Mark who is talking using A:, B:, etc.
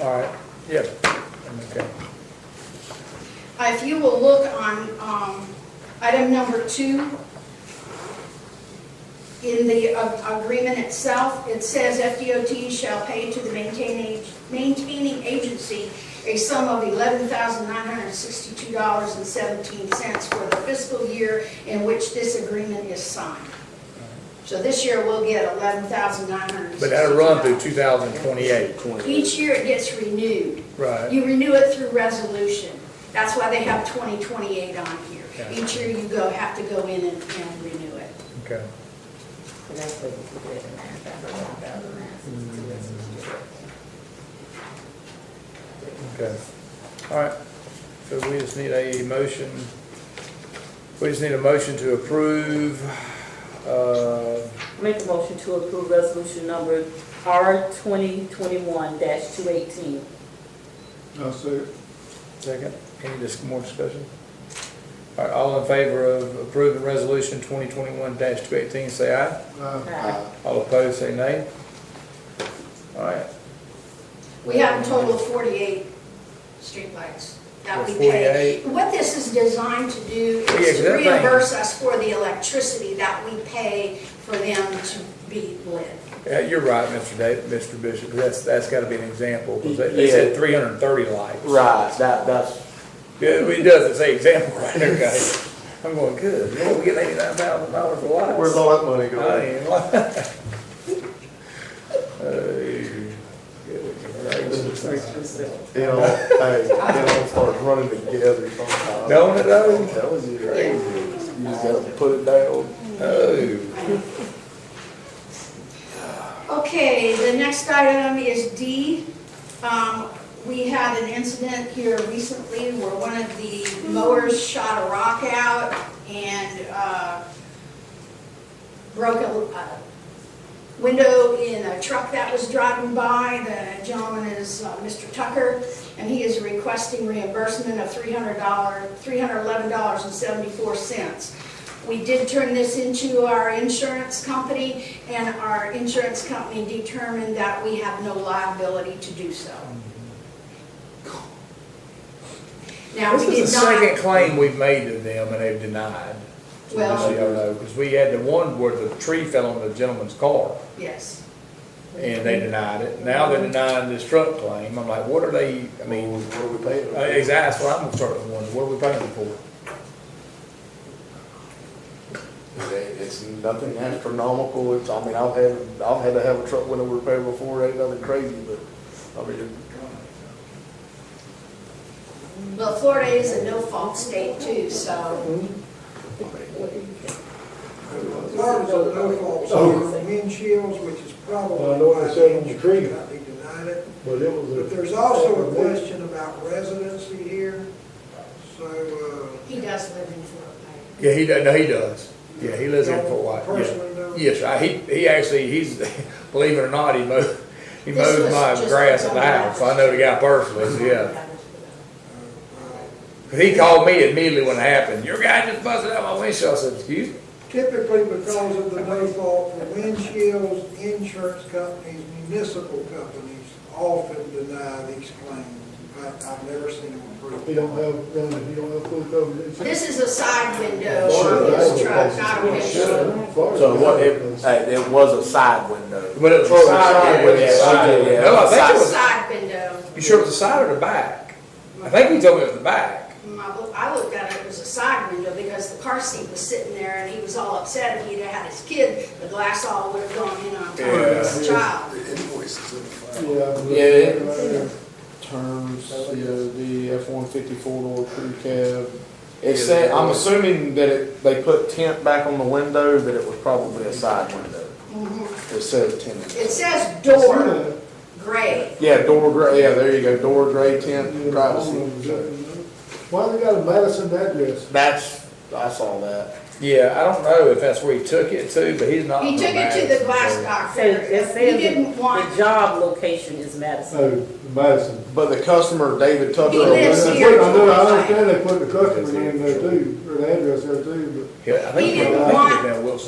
A: All right, yeah, okay.
B: Uh, If you will look on um, item number two, in the uh, agreement itself, it says FDOT shall pay to the maintaining maintaining agency a sum of $11,962.17 for the fiscal year in which this agreement is signed. So this year, we'll get $11,962.
A: But that'll run through 2028,
B: Each year, it gets renewed.
A: right?
B: You renew it through resolution. That's why they have 2028 on here.
A: Yeah.
B: Each year you go, have to go in and, and renew it.
A: Okay. Okay, all right, so we just need a motion, we just need a motion to approve, uh,
C: Make a motion to approve resolution number R twenty twenty-one two eighteen.
D: I'll say,
A: second, any dis- more discussion? All right, all in favor of approving resolution twenty twenty-one two eighteen, say aye.
D: uh,
A: All opposed, say nay. All right,
B: We have a total of 48 streetlights that we pay.
A: 48.
B: What this is designed to do
A: Yeah, 'cause
B: is
A: that
B: to
A: thing-
B: reimburse us for the electricity that we pay for them to be lit.
A: yeah, you're right, Mr. David, Mr. Bishop, that's, that's gotta be an example, because they they said
E: Yeah.
A: three hundred and thirty lights.
E: Right, that, that's,
A: Yeah, it does, it's an example right there, guys. I'm going, good, Lord, we get eighty-nine thousand dollars for lights.
D: where's all that money
A: I
D: going?
A: ain't Oh, lying.
D: You know, hey, you know, starts running together sometimes.
A: Don't it though?
D: That was you crazy. You just gotta put it down.
A: Oh,
B: Okay, the next item is D. Um, We had an incident here recently where one of the mowers shot a rock out and uh, broke a uh, window in a truck that was driving by. The gentleman is uh, Mr. Tucker, and he is requesting reimbursement of $300, $311.74. We did turn this into our insurance company, and our insurance company determined that we have no liability to do so. Now,
A: This
B: we did
A: is the second
B: not,
A: claim we've made to them and they've denied.
B: well,
A: Because we had the one where the tree fell on the gentleman's car
B: yes,
A: and they denied it. Now they're denying this truck claim. I'm like, what are they, I
D: I
A: mean,
D: mean, what are we paying?
A: uh, exactly, that's what I'm starting to wonder. What are we paying them for?
D: It- It's nothing astronomical, it's, I mean, I've had, I've had to have a truck window repaired before, it ain't nothing crazy, but, I mean,
B: well, Florida is a no-fault state too, so.
F: Cars are no fault,
C: Oh.
F: so windshields, which is probably.
G: Well, I know what it said on the
F: why they
G: tree.
F: should not be denied it.
G: But it was a.
F: But there's also a question about residency here, so, uh.
B: He does live in Fort Payne.
A: Yeah, he does, no, he does. Yeah, he lives in Fort White. yeah.
F: Personally, though.
A: Yes, I, he, he actually, he's, believe it or not, he mows, he
B: This
A: mows
B: was
A: my
B: just
A: grass at the
B: a couple
A: house. I know the guy personally, so yeah.
F: uh,
A: But He called me immediately when it happened. Your guy just busted out my windshield. I said, excuse me?
F: Typically, because of the no fault for windshields, insurance companies, municipal companies often deny these claims. In fact, I've never seen them approved.
G: You don't have, running, you don't have full coverage.
B: This is a side window on his truck, not a windshield.
E: so what, it, hey, it was a side window.
A: But it was a
E: Oh,
A: side
E: side
A: window.
E: window, side window.
A: No, I think it was,
B: Side window.
A: you sure it was the side or the back? I think he told me it was the back.
B: My loo- I looked at it, it was a side window because the car seat was sitting there and he was all upset if he'd have had his kid, the glass all would have gone in on top of his
G: Yeah.
B: child.
D: The invoices in the file.
E: Yeah.
D: Terms, COD, F-150 four-door crew cab. It
A: Yeah,
D: said,
A: the-
D: I'm assuming that it, they put tent back on the window, that it was probably a side window.
B: Mhm.
D: It says tent.
B: It says door gray.
D: Yeah, door gray, yeah, there you go, door gray tent, privacy.
G: Why they got a Madison address?
D: That's, I saw that.
A: Yeah, I don't know if that's where he took it to, but he's not.
B: He took it to the glass
C: So
B: doctor.
C: it
B: He didn't
C: says that the
B: want,
C: job location is Madison.
G: Oh, Madison.
D: But the customer, David Tucker.
B: He lives
G: I
B: here.
G: put- I know, I understand they put the customer in there too, or the address there too, but
A: Yeah, I think
B: He
A: I
B: didn't
A: think it was
B: want-
A: down Wilson.